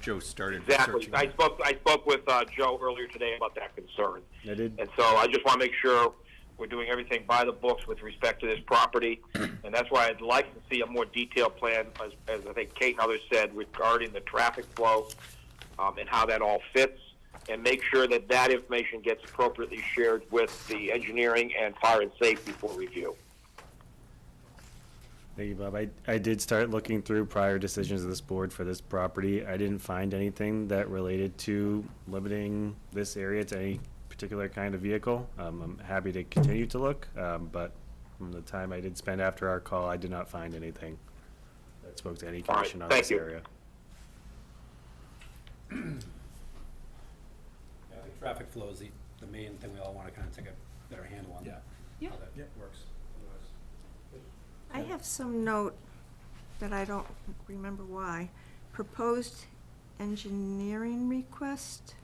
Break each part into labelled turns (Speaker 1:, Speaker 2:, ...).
Speaker 1: Joe started
Speaker 2: Exactly.
Speaker 1: researching.
Speaker 2: I
Speaker 1: it.
Speaker 2: spoke, I spoke with uh, Joe earlier today about that concern.
Speaker 3: I did.
Speaker 2: And so I just want to make sure we're doing everything by the books with respect to this property. And that's why I'd like to see a more detailed plan, as, as I think Kate and others said, regarding the traffic flow um, and how that all fits. And make sure that that information gets appropriately shared with the engineering and fire and safety for review.
Speaker 3: Thank you, Bob. I, I did start looking through prior decisions of this board for this property. I didn't find anything that related to limiting this area to any particular kind of vehicle. Um, I'm happy to continue to look, um, but from the time I did spend after our call, I did not find anything that spoke to any
Speaker 2: All right,
Speaker 3: condition on
Speaker 2: thank
Speaker 3: this
Speaker 2: you.
Speaker 3: area.
Speaker 4: Yeah, I think traffic flow is the, the main thing we all want to kind of take a better handle on that.
Speaker 5: Yeah.
Speaker 4: How that works. Otherwise-
Speaker 6: I have some note that I don't remember why. Proposed engineering request?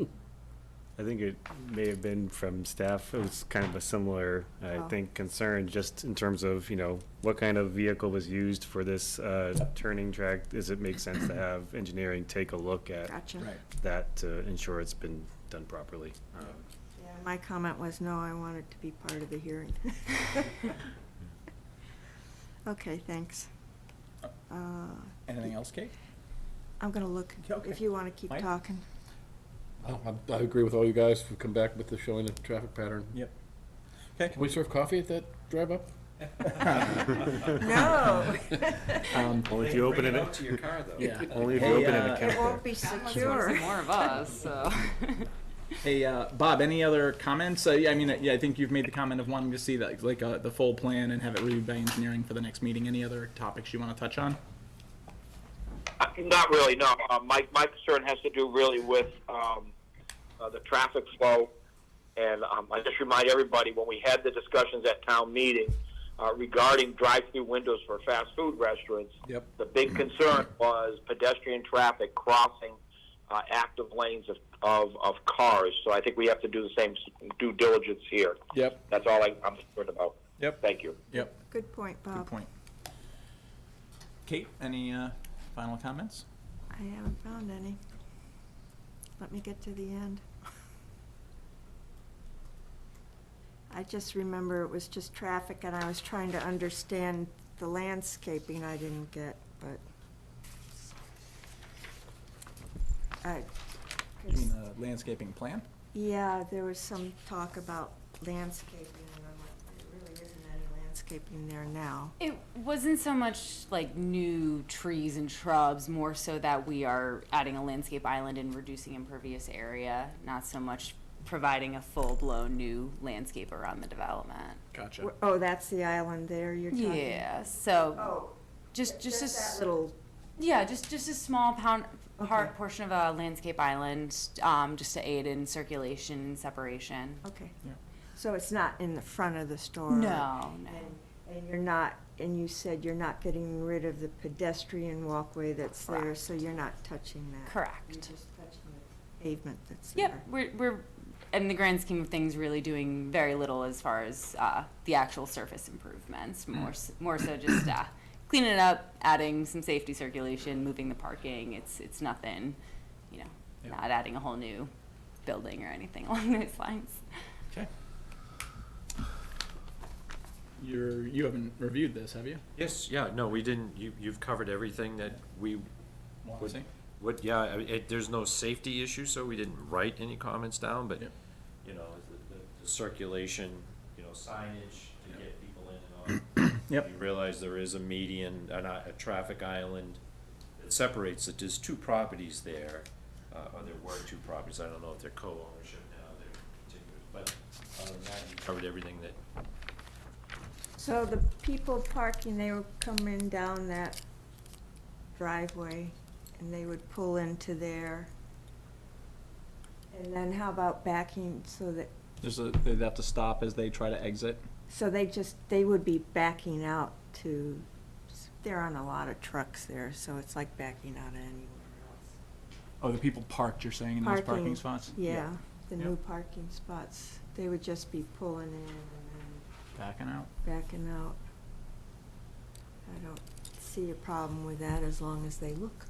Speaker 3: I think it may have been from staff, it was kind of a similar, I
Speaker 6: Oh.
Speaker 3: think, concern, just in terms of, you know, what kind of vehicle was used for this uh, turning track? Does it make sense to have engineering take a look at
Speaker 6: Gotcha.
Speaker 4: Right.
Speaker 3: that to ensure it's been done properly? Um,
Speaker 6: Yeah, My comment was, no, I wanted to be part of the hearing. Okay, thanks. Uh,
Speaker 7: Anything else, Kate?
Speaker 6: I'm gonna look, if
Speaker 7: Okay.
Speaker 6: you wanna keep
Speaker 7: Mike?
Speaker 6: talking.
Speaker 8: Oh, I, I agree with all you guys who come back with the showing the traffic pattern.
Speaker 7: Yep. Okay.
Speaker 8: Can we serve coffee at that drive up?
Speaker 6: No,
Speaker 3: Only if you open it,
Speaker 4: to your car, though.
Speaker 7: Yeah.
Speaker 3: only if you
Speaker 7: Hey,
Speaker 3: open an
Speaker 7: uh,
Speaker 6: it
Speaker 3: account
Speaker 6: won't be
Speaker 5: Someone's gonna see
Speaker 6: secure.
Speaker 5: more of us, so.
Speaker 7: Hey, uh, Bob, any other comments? Uh, yeah, I mean, yeah, I think you've made the comment of wanting to see that, like uh, the full plan and have it reviewed by engineering for the next meeting. Any other topics you want to touch on?
Speaker 2: Uh, Not really, no. Uh, my, my concern has to do really with um, uh, the traffic flow. And um, I just remind everybody when we had the discussions at town meeting uh, regarding drive through windows for fast food restaurants,
Speaker 7: Yep.
Speaker 2: the big concern was pedestrian traffic crossing uh, active lanes of, of, of cars. So I think we have to do the same s- due diligence here.
Speaker 7: Yep.
Speaker 2: That's all I, I'm concerned about.
Speaker 7: Yep.
Speaker 2: Thank you.
Speaker 7: Yep.
Speaker 6: Good point,
Speaker 7: Good
Speaker 6: Bob.
Speaker 7: point. Kate, any uh, final comments?
Speaker 6: I haven't found any. Let me get to the end. I just remember it was just traffic and I was trying to understand the landscaping I didn't get, but. I-
Speaker 7: You mean the landscaping plan?
Speaker 6: Yeah, there was some talk about landscaping and I'm like, there really isn't any landscaping there now.
Speaker 5: It wasn't so much like new trees and shrubs, more so that we are adding a landscape island and reducing impervious area, not so much providing a full-blown new landscape around the development.
Speaker 7: Gotcha.
Speaker 6: Where- Oh, that's the island there you're talking?
Speaker 5: Yeah, so
Speaker 6: Oh,
Speaker 5: just, just a.
Speaker 6: just
Speaker 5: s-
Speaker 6: that little
Speaker 5: Yeah, just just a small pound part
Speaker 6: Okay.
Speaker 5: portion of a landscape island, um, just to aid in circulation and separation.
Speaker 6: Okay.
Speaker 7: Yeah.
Speaker 6: So it's not in the front of the store?
Speaker 5: No, no.
Speaker 6: And, and you're not, and you said you're not getting rid of the pedestrian walkway that's there, so you're not touching that? You're
Speaker 5: Correct.
Speaker 6: just touching the pavement that's there?
Speaker 5: Yep, we're we're in the grand scheme of things really doing very little as far as uh, the actual surface improvements. More s more so just uh, cleaning it up, adding some safety circulation, moving the parking. It's it's nothing, you know,
Speaker 7: Yeah.
Speaker 5: not adding a whole new building or anything along those lines.
Speaker 7: Okay. You're you haven't reviewed this, have you?
Speaker 9: Yes, yeah, no, we didn't, you, you've covered everything that we
Speaker 7: Want to
Speaker 9: would,
Speaker 7: see?
Speaker 9: would, yeah, I mean, it, there's no safety issue, so we didn't write any comments down, but,
Speaker 7: Yep.
Speaker 9: you know, the, the- the circulation, you know, signage to
Speaker 7: Yep.
Speaker 9: get people in and out.
Speaker 7: Yep.
Speaker 9: You realize there is a median, an i- a traffic island that separates it, there's two properties there, uh, or there were two properties, I don't know if they're co-ownership now, they're contiguous, but other than that, you covered everything that,
Speaker 6: So the people parking, they were coming down that driveway, and they would pull into there? And then how about backing so that,
Speaker 7: There's a, they'd have to stop as they try to exit.
Speaker 6: so they just, they would be backing out to, they're on a lot of trucks there, so it's like backing out of anywhere else.
Speaker 7: Oh, the people parked. You're saying in those parking spots?
Speaker 6: Yeah, the
Speaker 7: Yeah.
Speaker 6: new parking spots. They would just be pulling in and then
Speaker 7: Backing out.
Speaker 6: backing out. I don't see a problem with that as long as they look.